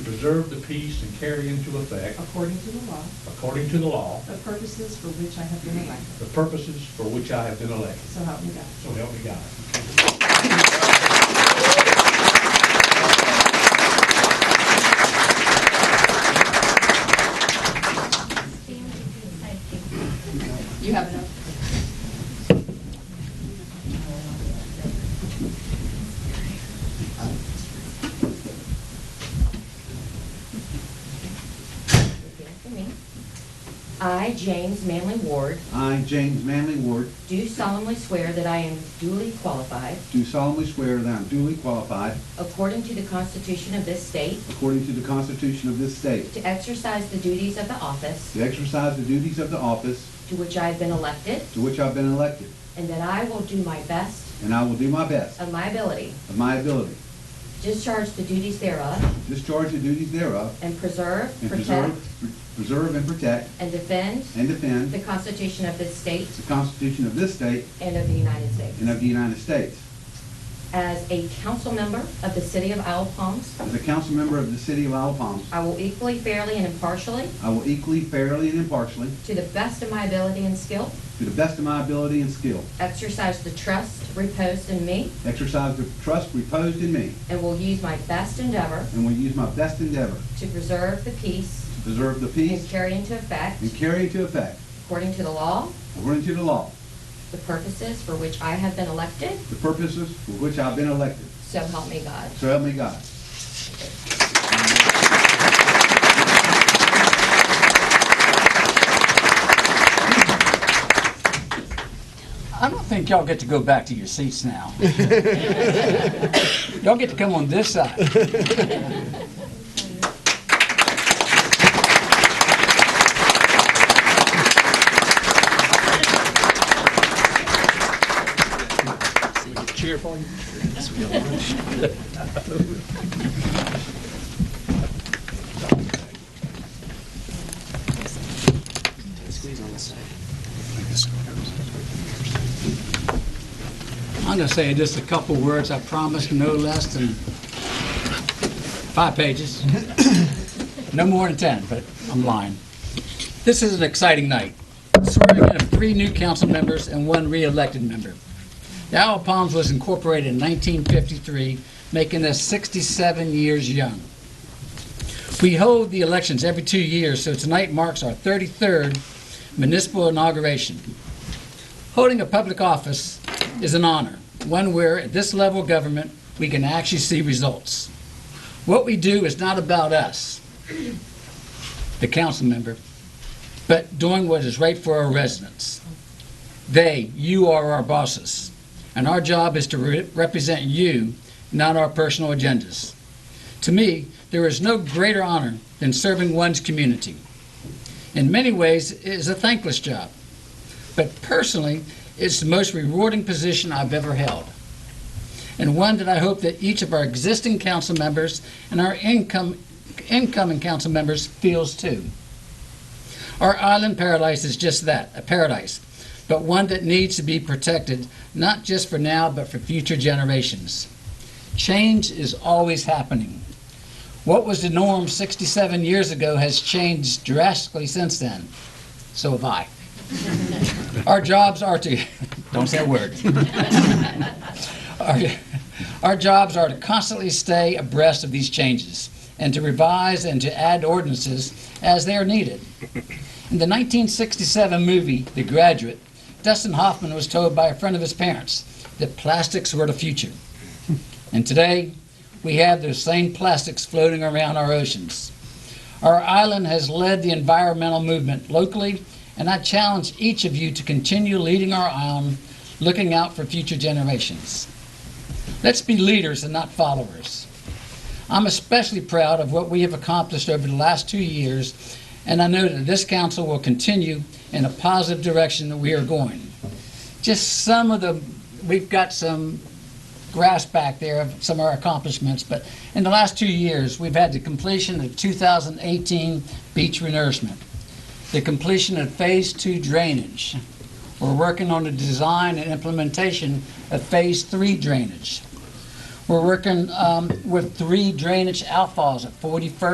preserve the peace and carry into effect, according to the law, according to the law, the purposes for which I have been elected. the purposes for which I have been elected. So help me God. So help me God. You have enough. Repeat after me. I, James Manley Ward, I, James Manley Ward, do solemnly swear that I am duly qualified, do solemnly swear that I am duly qualified, according to the Constitution of this state, according to the Constitution of this state, to exercise the duties of the office to exercise the duties of the office to which I have been elected, to which I've been elected, and that I will do my best and I will do my best of my ability, of my ability, discharge the duties thereof, discharge the duties thereof, and preserve, and protect, preserve, preserve and protect and defend and the defend Constitution of this state the Constitution of this state and of the United States. and of the United States. As a council member of the City of Owl Palms, As a council member of the city of Isle of Palms, I will equally, fairly, and impartially, I will equally, fairly, and impartially, to the best of my ability and skill, to the best of my ability and skill, Exercise the trust reposed in me exercise the trust reposed in me, and will use my best endeavor and will use my best endeavor to preserve the peace to preserve the and peace carry into effect, and carry into effect, according to the law, according to the law, the purposes for which I have been elected, the purposes for which I've been elected. so help me God. So help me God. I don't think y'all get to go back to your seats now. Y'all get to come on this side. I'm gonna say just a couple words, I promise, no less than five pages. No more than 10, but I'm lying. This is an exciting night. Swearing in of three new council members and one re-elected member. The Isle of Palms was incorporated in 1953, making us 67 years young. We hold the elections every two years, so tonight marks our 33rd municipal inauguration. Holding a public office is an honor, one where, at this level of government, we can actually see results. What we do is not about us, the council member, but doing what is right for our residents. They, you are our bosses, and our job is to re- represent you, not our personal agendas. To me, there is no greater honor than serving one's community. In many ways, it is a thankless job but personally, it's the most rewarding position I've ever held, and one that I hope that each of our existing council members and our income, incoming council members feels too. Our island paradise is just that, a paradise, but one that needs to be protected, not just for now, but for future generations. Change is always happening. What was the norm 67 years ago has changed drastically since then. So have I. Our jobs are to, don't say a word. Our- Our jobs are to constantly stay abreast of these changes and to revise and to add ordinances as they are needed. In the 1967 movie, The Graduate, Dustin Hoffman was told by a friend of his parents that plastics were the future. And today, we have those same plastics floating around our oceans. Our island has led the environmental movement locally, and I challenge each of you to continue leading our island, looking out for future generations. Let's be leaders and not followers. I'm especially proud of what we have accomplished over the last two years, and I know that this council will continue in a positive direction that we are going. Just some of the, we've got some grasp back there of some of our accomplishments, but in the last two years, we've had the completion of 2018 beach renourishment, the completion of Phase 2 drainage. We're working on the design and implementation of Phase 3 drainage. We're working um, with three drainage outfalls at 41st